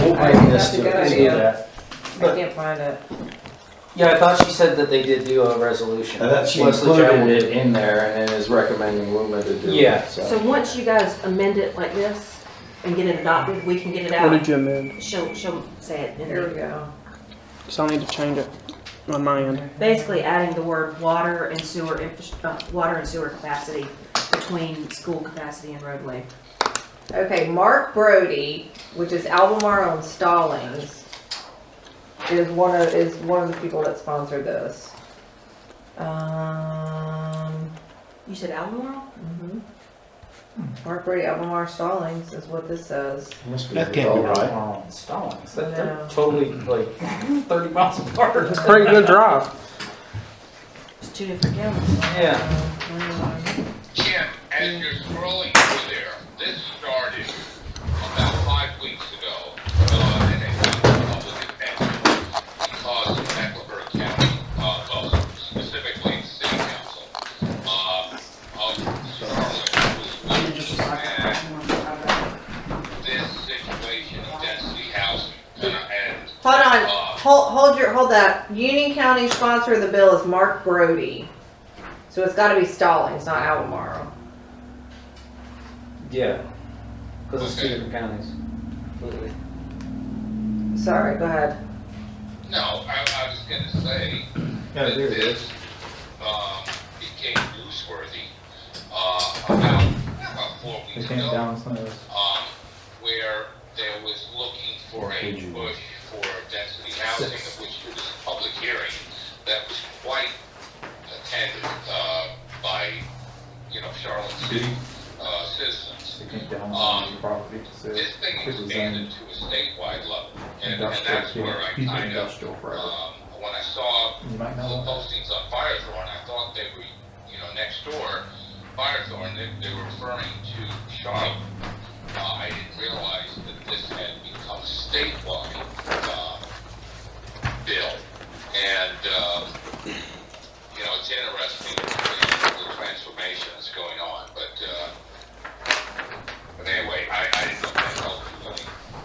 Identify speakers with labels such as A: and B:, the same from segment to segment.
A: I missed
B: That's a
A: it,
B: good
A: see
B: idea.
A: that.
B: I can't find it.
C: Yeah, I thought she said that they did do a resolution.
A: I thought she
C: Leslie Jones
A: included it in there and then is recommending Luma to do it.
C: Yeah.
D: So once you guys amend it like this and get it adopted, we can get it
E: What did
D: out.
E: you amend?
D: She'll, she'll say it in
B: Here
D: there.
B: we go.
E: Because I need to change it on my end.
D: Basically adding the word water and sewer, infra- uh, water and sewer capacity between school capacity and roadway.
B: Okay, Mark Brody, which is Albemarle and Stallings, is one of, is one of the people that sponsored this. Um,
D: You said Albemarle?
B: mhm. Mark Brody, Albemarle Stallings is what this says.
A: Must be
F: That can't be
A: all right.
F: right.
C: "Oh,
F: On Stallings, that,
B: No.
F: they're totally like thirty miles apart.
E: It's a pretty good drive.
D: It's two different counties.
C: Yeah.
G: Jim, as you're scrolling through there, this started about five weeks ago, uh, and it got public attention because of Mecklenburg County, uh, well, specifically City Council, uh, of Charlotte, who was at this situation of density housing, and, and,
B: Hold on,
G: uh,
B: hold, hold your, hold that. Union County sponsor of the bill is Mark Brody. So it's gotta be Stallings, not Albemarle.
C: Yeah. Because it's two
G: Okay.
C: different counties. Completely.
B: Sorry, go ahead.
G: no, I, I was gonna say,
A: Yeah,
G: that
A: there it is.
G: this, um, became newsworthy, uh, about, about four
F: It
G: weeks
F: came
G: ago,
F: down some of those.
G: um, where there was looking for a
A: Page one.
G: push for density housing, of which there was a public hearing that was quite attended, uh, by, you know, Charlotte City, uh, citizens. Um,
F: It came down on the property. so
G: This thing
F: it was zoned
G: expanded to a statewide level, and, and
F: Industrial,
G: that's where I
F: yeah, he's been
G: kind of,
F: industrial forever.
G: um, when I saw
F: You might
G: the
F: know that.
G: postings on Firethorn, I thought they were, you know, next door, Firethorn, they, they were referring to Charlotte. Uh, I didn't realize that this had become statewide, uh, bill. And, um, you know, it's interesting, you know, the transformation that's going on, but, uh, but anyway, I, I didn't know that helped you any.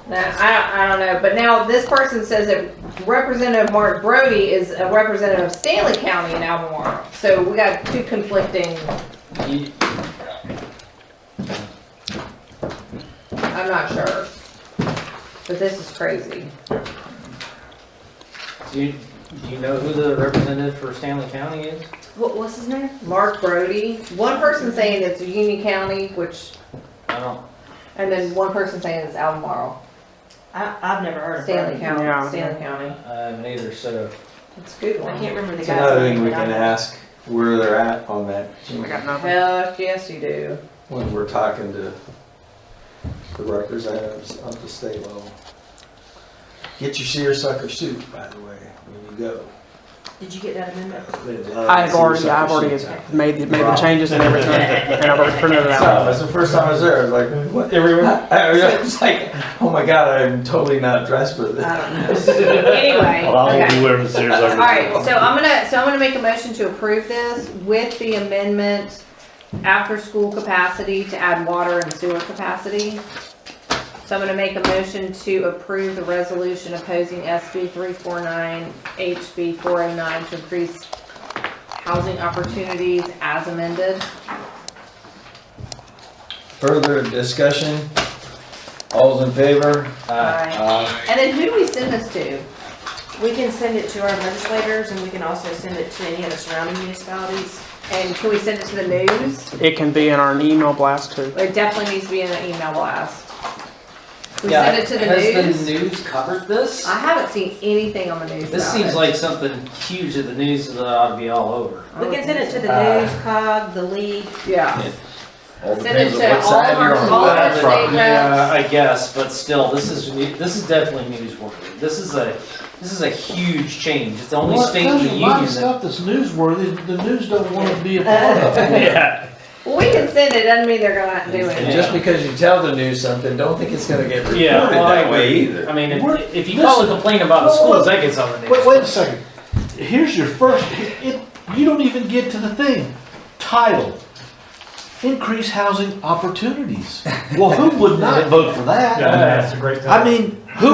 B: Nah, I, I don't know, but now this person says that Representative Mark Brody is a representative of Stanley County in Albemarle. So we got two conflicting,
C: You-
B: I'm not sure. But this is crazy.
C: Do you, do you know who the representative for Stanley County is?
D: What, what's his name?
B: Mark Brody, one person saying it's Union County, which,
C: I don't.
B: and then one person saying it's Albemarle,
D: I, I've never heard of him.
B: Stanley County,
E: Yeah.
B: Stanley County.
C: Uh, neither. So
B: It's a good
D: I
B: one.
D: can't remember the
A: It's
D: guy's name.
A: another thing we
D: but I-
A: can ask where they're at on that
E: I got nothing.
B: Heck, yes, you do.
A: when we're talking to the representatives of the state level. Get your seersucker suit, by the way, when you go.
D: Did you get that amendment?
A: They love
E: I've already, I've
A: seersucker
E: already
A: suits.
E: made the, made the changes and everything, and I've already printed it out.
A: So, that's the first time I was there, I was like, what, everyone, I was like, oh my god, I'm totally not dressed for this.
B: Anyway,
H: Well, I won't
B: okay.
H: be wearing the Sears. All
B: Alright, so uh, I'm gonna, so I'm gonna make a motion to approve this with the amendment after-school capacity to add water and sewer capacity. So I'm gonna make a motion to approve the resolution opposing SB three four nine, HB four oh nine to increase housing opportunities as amended.
A: Further discussion? All's in favor?
C: uh,
A: Aye.
B: And then who do we send this to?
D: We can send it to our legislators and we can also send it to any of the surrounding municipalities.
B: And can we send it to the news?
E: It can be in our email blast too.
B: It definitely needs to be in an email blast. We
C: yeah,
B: send it to the
C: has
B: news?
C: the news covered this?
B: I haven't seen anything on the news
C: This
B: about
C: seems
B: it.
C: like something huge that the news that ought to be all over.
D: We can send it to the
C: Uh,
D: news, cog, the league,
B: Yeah.
A: All
B: Send
A: depends
B: it
A: on
B: to
A: what
B: all
A: side
B: of our-
A: you're on.
B: all of our
A: That's right.
B: state reps.
C: Yeah, Uh, I guess, but still, this is new- this is definitely newsworthy. This is a this is a huge change. It's the only state in the union that
H: that's newsworthy, the news don't want to be a part of
E: Uh,
F: Yeah.
B: Well, we can send it, doesn't mean they're gonna do
A: And
B: it.
A: just because you tell the news something, don't think it's gonna get reported
C: Yeah, well, I
A: that way
C: agree.
A: either.
C: I mean,
H: We're-
C: if, if you
H: this-
C: call and complain about the
H: Well,
C: schools,
H: look-
C: that gets on the news.
H: Wait, wait a second. Here's your first, it, you don't even get to the thing. Title, increase housing opportunities. Well, who would not vote for that?
F: Yeah, that's a great.
H: I mean, who